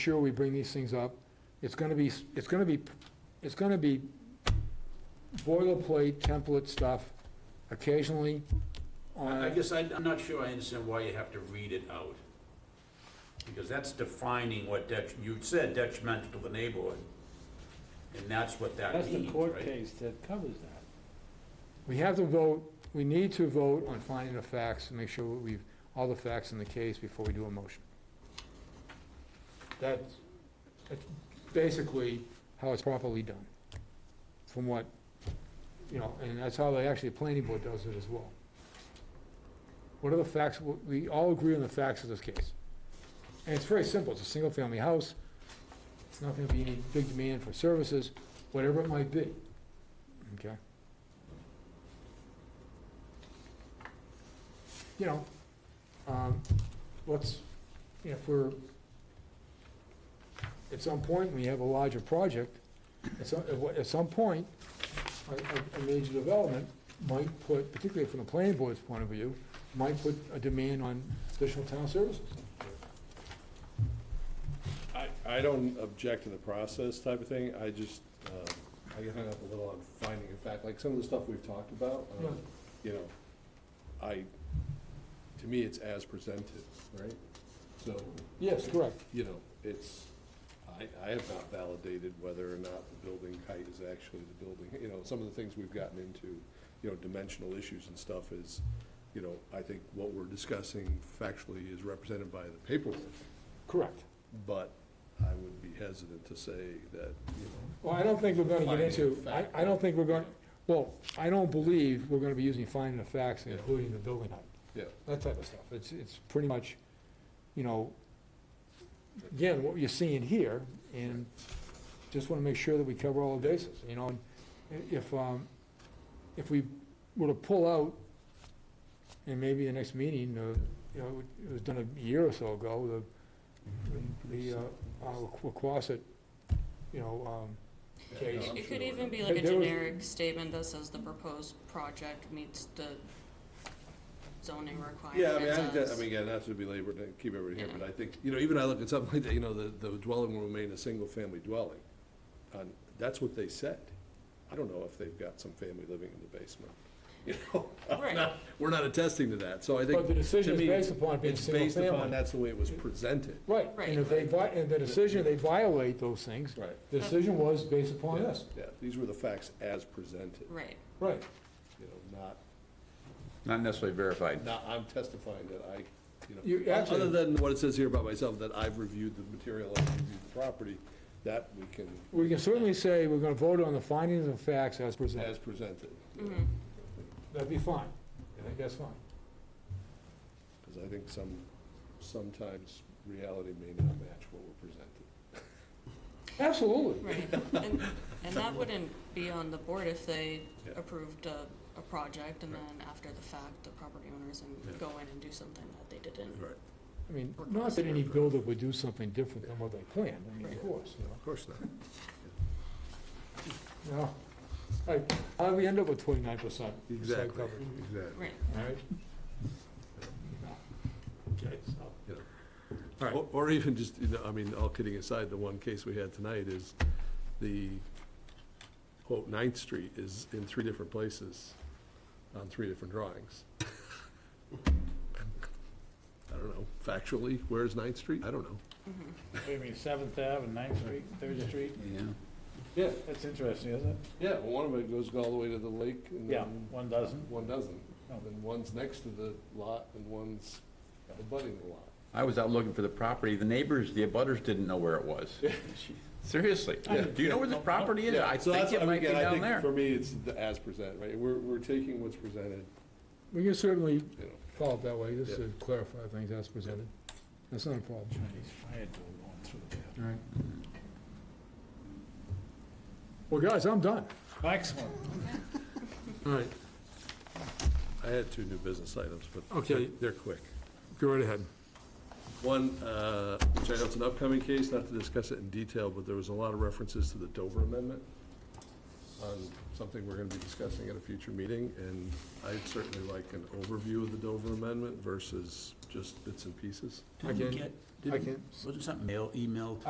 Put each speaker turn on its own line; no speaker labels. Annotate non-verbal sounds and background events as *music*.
sure we bring these things up. It's gonna be, it's gonna be, it's gonna be boilerplate template stuff occasionally
I I
Uh,
on,
guess I- I'm not sure I understand why you have to read it out. Because that's defining what det, you said detrimental to the neighborhood. And that's what that
That's the
means,
court
right?
case that covers that.
we have to vote, we need to vote on finding the facts to make sure we've, all the facts in the case before we do a motion. That's, that's basically how it's properly done, from what, you know, and that's how they, actually, the planning board does it as well. What are the facts, we- we all agree on the facts of this case. And it's very simple, it's a single-family house, it's not gonna be any big demand for services, whatever it might be, okay? You know, um, let's, if we're, at some point, when you have a larger project, at some, at what- at some point, a, a- a major development might put, particularly from the planning board's point of view, might put a demand on additional town services.
I, I don't object to the process type of thing, I just, um, I get hung up a little on finding a fact, like some of the stuff we've talked about, um,
Yeah.
you know, I, to me, it's as presented, right? So,
Yes, correct.
you know, it's, I, I have not validated whether or not the building height is actually the building, you know, some of the things we've gotten into, you know, dimensional issues and stuff is, you know, I think what we're discussing factually is represented by the paperwork,
Correct.
but I would be hesitant to say that, you know,
Well, I don't think we're gonna get
Finding
into,
of
I,
fact.
I don't think we're going, well, I don't believe we're gonna be using finding of facts,
Yeah.
including the building height,
yeah.
that type of stuff. It's, it's pretty much, you know, again, what you're seeing here, and just wanna make sure that we cover all the bases, you know? and i- If, um, if we were to pull out, and maybe the next meeting, uh, you know, it was done a year or so ago, the, the, uh, uh, Quasit, you know, um, case.
I'm
It
sure
could even be
we're-
like a
But there was-
generic statement that says the proposed project meets the zoning requirements.
Yeah, I mean, I think that, I
as-
mean, again, not to belabor, to keep everybody here, but I think, you know, even I look at something like that, you know, the, the dwelling will remain a single-family dwelling. And that's what they said. I don't know if they've got some family living in the basement, *laughs* you know? I'm
Right.
not- We're not attesting to that, so I think.
But the decision
to
is
me,
based upon it being
It's based upon,
single-family.
that's the way it was presented.
Right,
Right.
and if they, vi- and the decision, they violate those things.
Right.
The decision was based upon
Yeah,
this,
Yeah, these were the facts as presented,
Right,
right.
you know, not
Not necessarily verified.
Now, I'm testifying that I, you
You
know,
actually-
other than what it says here about myself, that I've reviewed the material, I've reviewed the property, that we can,
We can certainly say we're gonna vote on the findings and facts as
as
presented.
presented.
That'd be fine. I think that's fine.
Because I think some, sometimes reality may not match what we're presented.
Absolutely.
right. And, and that wouldn't be on the board if they
Yeah.
approved a, a project and then after the fact, the property owners and go in and do something that they didn't.
I mean, not that any builder would do something different than what they planned, I mean, of course, you know.
Of course not.
No. Like, how do we end up with twenty-nine percent?
Exactly. Exactly.
Right,
All right? All right.
Or- Or even just, you know, I mean, all kidding aside, the one case we had tonight is the, quote, Ninth Street is in three different places on three different drawings. I don't know, factually, where is Ninth Street? I don't know.
Mm-hmm.
What do you mean, Seventh Ave and Ninth Street, Third Street?
Yeah.
Yeah,
That's interesting, isn't it?
yeah, well, one of it goes all the way to the lake and
Yeah,
then
one doesn't.
one doesn't.
No.
And one's next to the lot and one's abutting the lot.
I was out looking for the property. The neighbors, the abutters didn't know where it
*laughs*
was. Seriously. Do you know where this property is? I
So that's-
think it
I mean,
might be
again, I
down
think
there.
For me, it's the as presented, right? We're, we're taking what's presented,
We can certainly
you know,
follow it that way, just to clarify things as presented. That's not a problem.
Chinese fire door going through there.
All right. Well, guys, I'm done.
Excellent.
All right,
I had two new business items, but
Okay.
they're quick.
go right ahead.
One, uh, which I know it's an upcoming case, not to discuss it in detail, but there was a lot of references to the Dover Amendment on something we're going to be discussing at a future meeting, and I'd certainly like an overview of the Dover Amendment versus just bits and pieces.
I
Didn't we
can-
get,
I
didn't-
can-
wasn't something mail, emailed?